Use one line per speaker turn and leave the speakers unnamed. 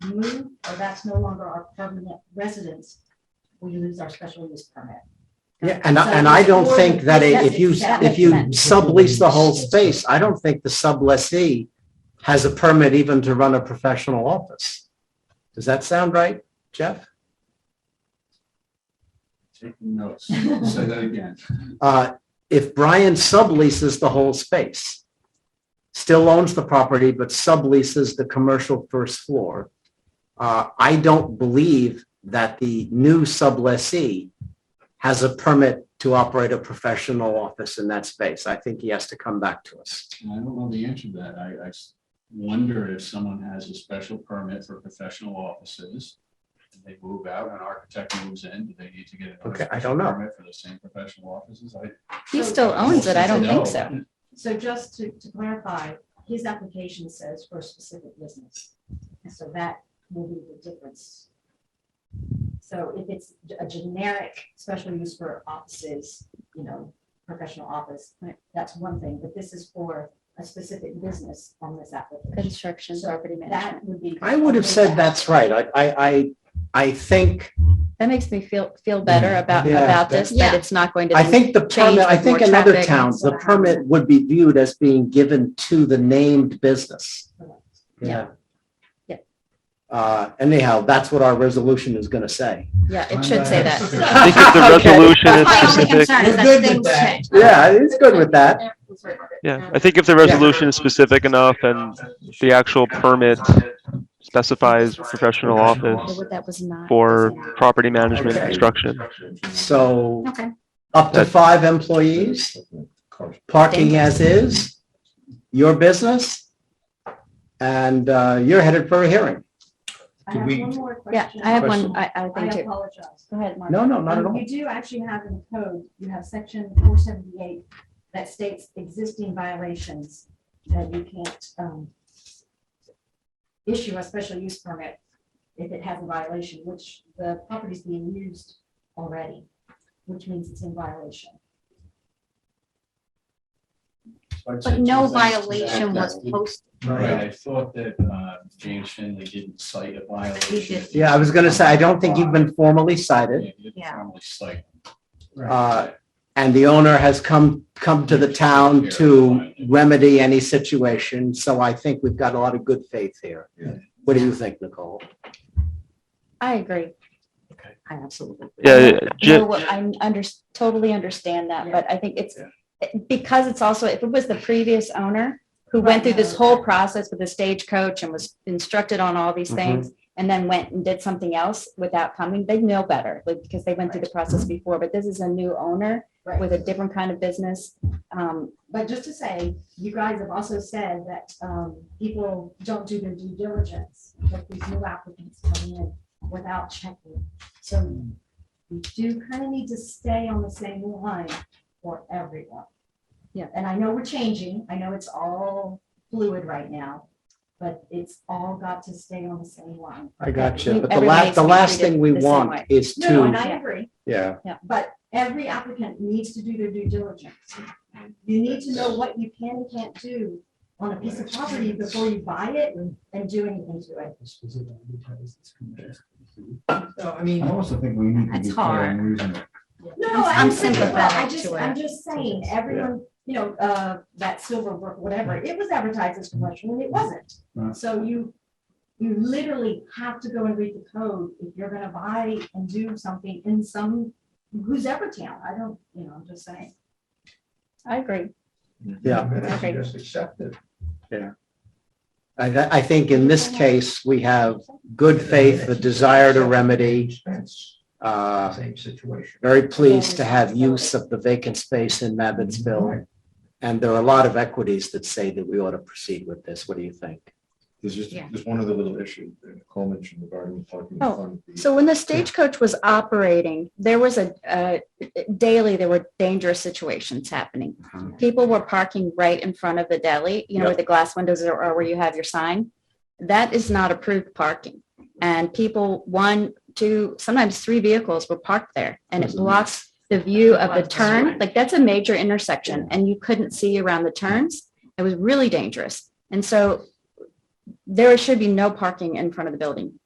approved or that's no longer our permanent residence, we lose our special use permit.
Yeah, and, I- and I don't think that i- if you,
That
if
makes
you
sense.
sublease the whole space, I don't think the sublessee has a permit even to run a professional office. Does that sound right, Jeff?
Taking notes. Say that again.
Uh, if Brian subleases the whole space, still owns the property, but subleases the commercial first floor, uh, I don't believe that the new sublessee has a permit to operate a professional office in that space. I think he has to come back to us.
And I don't know the answer to that. I, I s- wonder if someone has a special permit for professional offices. and They move out, an architect moves in, do they need to get another?
Okay, I
special
don't know.
Permit for the same professional offices? I.
He still owns it. I don't think so.
So just to, to clarify, his application says for a specific business. And so that will be the difference. So if it's a generic special use for offices, you know, professional office,
Right.
that's one thing, but this is for a specific business on this application.
Construction, property management.
That would be.
I would have said that's right. I, I, I, I think,
That makes me feel, feel better about,
Yeah.
about this, that
Yeah.
it's not going to.
I
then-
think the
Change
permit, I
with
think
more
in other
traffic.
towns, the permit would be viewed as being given to the named business.
Yeah. Yeah.
Uh, anyhow, that's what our resolution is gonna say.
Yeah, it should say that.
I think if the
Okay.
resolution is
My only
specific,
concern
We're
is that
good with
things
that.
change.
Yeah, it's good with that.
yeah, I think if the resolution is specific enough and the actual permit specifies professional office
But That was not.
for property management
Okay.
and construction.
So
Okay.
up to five employees, parking as is, your business. And, uh, you're headed for a hearing.
I
Could
have
we-
one more
Yeah,
question.
I have
Question.
one, I, I
I
think too.
apologize.
Go ahead, Mark.
No, no, not
Um,
at all.
You do actually have in the code, you have section four seventy-eight that states existing violations that you can't um, issue a special use permit if it has a violation, which the property's being used already, which means it's in violation.
But no violation was posted.
Right, I thought that, uh, James Finley didn't cite a violation.
Yeah, I was gonna say, I don't think you've been formally cited.
Yeah, you didn't formally cite.
Uh, and the owner has come, come to the town to remedy any situation, so I think we've got a lot of good faith here.
Yeah.
What do you think, Nicole?
I agree.
I absolutely.
Yeah,
You
J-
know what, I under, totally understand that,
Yeah.
but I think it's, because it's also, if it was the previous owner who
Right,
went through this
no.
whole process with the stagecoach and was instructed on all these
Mm-hmm.
things and then went and did something else without coming, they know better, like, because they went through the process before, but this is a new owner with a different kind of business. Um,
But just to say, you guys have also said that um, people don't do their due diligence, that these new applicants come in without checking. So we do kind of need to stay on the same line for everyone.
Yeah.
And I know we're changing, I know it's all fluid right now, but it's all got to stay on the same line.
I
got
gotcha.
you.
But the last, the
Everybody's
last thing we
treated the same
want
way.
is
No, no, and
to,
I agree,
yeah,
but every applicant needs to do their due diligence. You need to know what you can and can't do on a piece of property before you buy it and do anything to it.
So, I mean. I also think we need
to That's be fair hard.
and reasonable.
No,
I'm
I'm sympathetic. I
sympathetic
just,
to
I'm
it.
just saying, everyone, you know, uh, that Silverbrook, whatever, it was advertised as commercial and it wasn't.
Right.
So you, you literally have to go and read the code if you're gonna buy and do something in some, who's ever town, I don't, you know, I'm just saying.
I agree.
yeah.
Okay.
Just accept it.
I, I think in this case, we have good faith, a desire to remedy. Uh,
Same situation.
very pleased to have use of the vacant space in Mabbittsville. And there are a lot of equities that say that we ought to proceed with this. What do you think?
There's just,
Yeah.
there's one other little issue, that Nicole mentioned regarding the parking. in
Oh,
front of the-
So when the stagecoach was operating, there was a, uh, daily, there were dangerous situations happening.
Mhm.
People were parking right in front of the deli, you know, where the glass windows are, or where you have your sign. That is not approved parking. And people, one, two, sometimes three vehicles were parked there and it
Wasn't it?
blocks the view of
Blocks
the
the
turn. Like that's a major intersection and you couldn't see around the turns. It was really dangerous. And so there should be no parking in front of the building